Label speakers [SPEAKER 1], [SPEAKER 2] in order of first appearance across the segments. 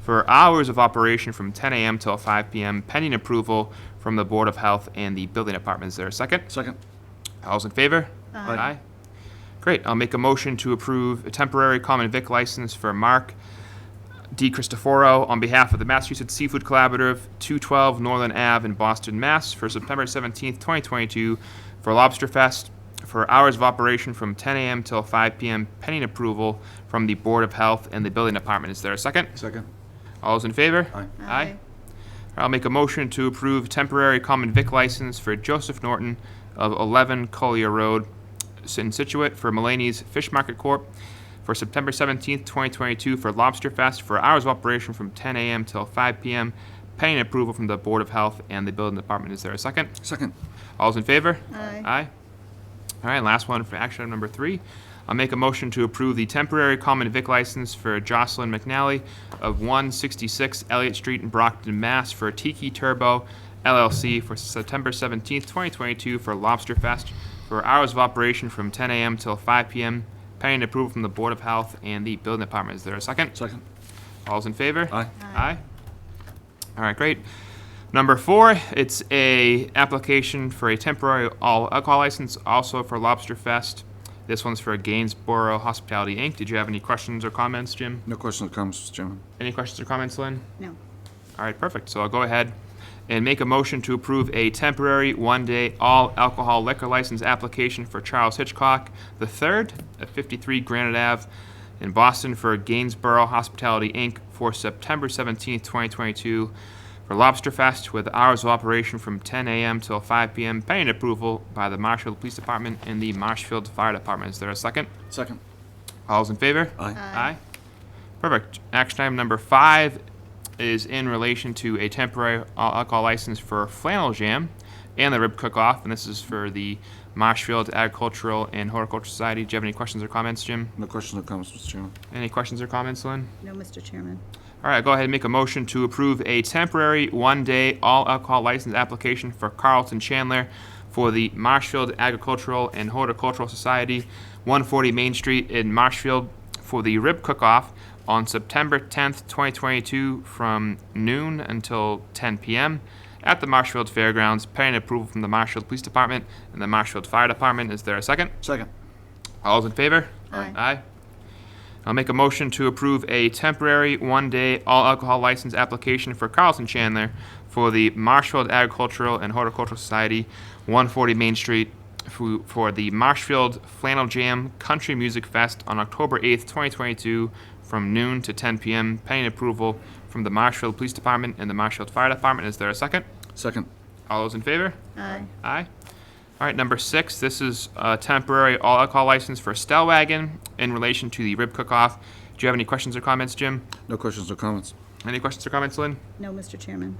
[SPEAKER 1] for hours of operation from 10 AM till 5 PM, pending approval from the Board of Health and the Building Department. Is there a second?
[SPEAKER 2] Second.
[SPEAKER 1] All's in favor?
[SPEAKER 2] Aye.
[SPEAKER 1] Great, I'll make a motion to approve a temporary common vic license for Mark D. Cristoforo on behalf of the Massachusetts Seafood Collaborative, 212 Northern Ave in Boston, Mass. for September 17th, 2022 for Lobster Fest for hours of operation from 10 a.m. till 5 p.m. pending approval from the Board of Health and the Building Department. Is there a second?
[SPEAKER 2] Second.
[SPEAKER 1] All those in favor?
[SPEAKER 2] Aye.
[SPEAKER 1] Aye. I'll make a motion to approve temporary common vic license for Joseph Norton of 11 Collier Road in Situate for Mulaney's Fish Market Corp. for September 17th, 2022 for Lobster Fest for hours of operation from 10 a.m. till 5 p.m. pending approval from the Board of Health and the Building Department. Is there a second?
[SPEAKER 2] Second.
[SPEAKER 1] All's in favor?
[SPEAKER 3] Aye.
[SPEAKER 1] Aye. All right, last one for action item number three. I'll make a motion to approve the temporary common vic license for Jocelyn McNally of 166 Elliott Street in Brockton, Mass. for Tiki Turbo LLC for September 17th, 2022 for Lobster Fest for hours of operation from 10 a.m. till 5 p.m. pending approval from the Board of Health and the Building Department. Is there a second?
[SPEAKER 2] Second.
[SPEAKER 1] All's in favor?
[SPEAKER 2] Aye.
[SPEAKER 1] Aye. All right, great. Number four, it's a application for a temporary all alcohol license, also for Lobster Fest. This one's for Gainsborough Hospitality Inc. Did you have any questions or comments, Jim?
[SPEAKER 2] No questions or comments, Mr. Chairman.
[SPEAKER 1] Any questions or comments, Lynn?
[SPEAKER 3] No.
[SPEAKER 1] All right, perfect. So I'll go ahead and make a motion to approve a temporary one-day all alcohol liquor license application for Charles Hitchcock III at 53 Granite Ave in Boston for Gainsborough Hospitality Inc. for September 17th, 2022 for Lobster Fest with hours of operation from 10 a.m. till 5 p.m. pending approval by the Marshfield Police Department and the Marshfield Fire Department. Is there a second?
[SPEAKER 2] Second.
[SPEAKER 1] All's in favor?
[SPEAKER 2] Aye.
[SPEAKER 1] Aye. Perfect. Action item number five is in relation to a temporary al- alcohol license for Flannel Jam and the Rib Cook-Off, and this is for the Marshfield Agricultural and Horticultural Society. Do you have any questions or comments, Jim?
[SPEAKER 2] No questions or comments, Mr. Chairman.
[SPEAKER 1] Any questions or comments, Lynn?
[SPEAKER 3] No, Mr. Chairman.
[SPEAKER 1] All right, go ahead and make a motion to approve a temporary one-day all alcohol license application for Carlton Chandler for the Marshfield Agricultural and Horticultural Society, 140 Main Street in Marshfield for the rib cook-off on September 10th, 2022, from noon until 10 p.m. at the Marshfield Fairgrounds, pending approval from the Marshfield Police Department and the Marshfield Fire Department. Is there a second?
[SPEAKER 2] Second.
[SPEAKER 1] All's in favor?
[SPEAKER 3] Aye.
[SPEAKER 1] Aye. I'll make a motion to approve a temporary one-day all alcohol license application for Carlton Chandler for the Marshfield Agricultural and Horticultural Society, 140 Main Street, fu- for the Marshfield Flannel Jam Country Music Fest on October 8th, 2022, from noon to 10 p.m., pending approval from the Marshfield Police Department and the Marshfield Fire Department. Is there a second?
[SPEAKER 2] Second.
[SPEAKER 1] All those in favor?
[SPEAKER 3] Aye.
[SPEAKER 1] Aye. All right, number six, this is a temporary all alcohol license for Stellwagen in relation to the rib cook-off. Do you have any questions or comments, Jim?
[SPEAKER 2] No questions or comments.
[SPEAKER 1] Any questions or comments, Lynn?
[SPEAKER 3] No, Mr. Chairman.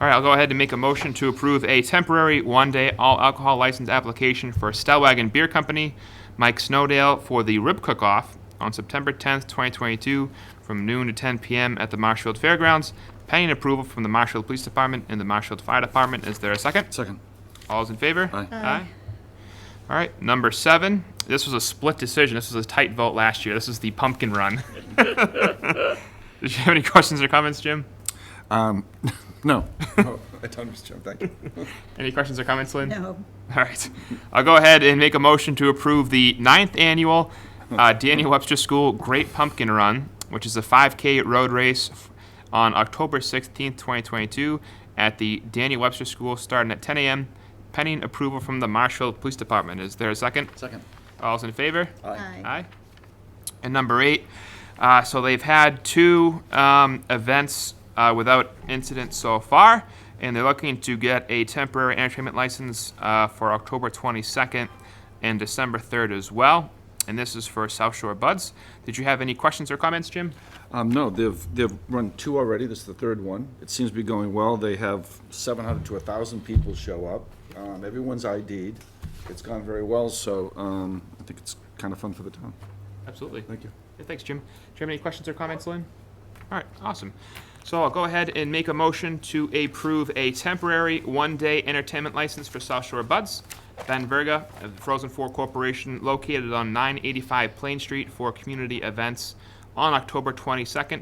[SPEAKER 1] All right, I'll go ahead and make a motion to approve a temporary one-day all alcohol license application for Stellwagen Beer Company, Mike Snowdale, for the Rib Cook-Off on September 10th, 2022, from noon to 10 p.m. at the Marshfield Fairgrounds, pending approval from the Marshfield Police Department and the Marshfield Fire Department. Is there a second?
[SPEAKER 2] Second.
[SPEAKER 1] All's in favor?
[SPEAKER 2] Aye.
[SPEAKER 3] Aye.
[SPEAKER 1] All right, number seven. This was a split decision. This was a tight vote last year. This is the pumpkin run. Did you have any questions or comments, Jim?
[SPEAKER 2] Um, no. Oh, I don't, Mr. Chairman, thank you.
[SPEAKER 1] Any questions or comments, Lynn?
[SPEAKER 3] No.
[SPEAKER 1] All right. I'll go ahead and make a motion to approve the ninth annual uh, Daniel Webster School Great Pumpkin Run, which is a 5K road race f- on October 16th, 2022, at the Daniel Webster School, starting at 10 a.m., pending approval from the Marshall Police Department. Is there a second?
[SPEAKER 2] Second.
[SPEAKER 1] All's in favor?
[SPEAKER 3] Aye.
[SPEAKER 1] Aye. And number eight, uh, so they've had two um, events uh, without incident so far, and they're looking to get a temporary entertainment license uh, for October 22nd and December 3rd as well. And this is for South Shore Buds. Did you have any questions or comments, Jim?
[SPEAKER 2] Um, no, they've, they've run two already, this is the third one. It seems to be going well, they have seven hundred to thousand people show up. Um, everyone's ID'd, it's gone very well, so, um, I think it's kind of fun for the town.
[SPEAKER 1] Absolutely.
[SPEAKER 2] Thank you.
[SPEAKER 1] Yeah, Thanks, Jim. Do you have any questions or comments, Lynn? All right, awesome. So I'll go ahead and make a motion to approve a temporary one-day entertainment license for South Shore Buds, Ben Verga of the Frozen Four Corporation, located on 985 Plain Street for community events on October 22nd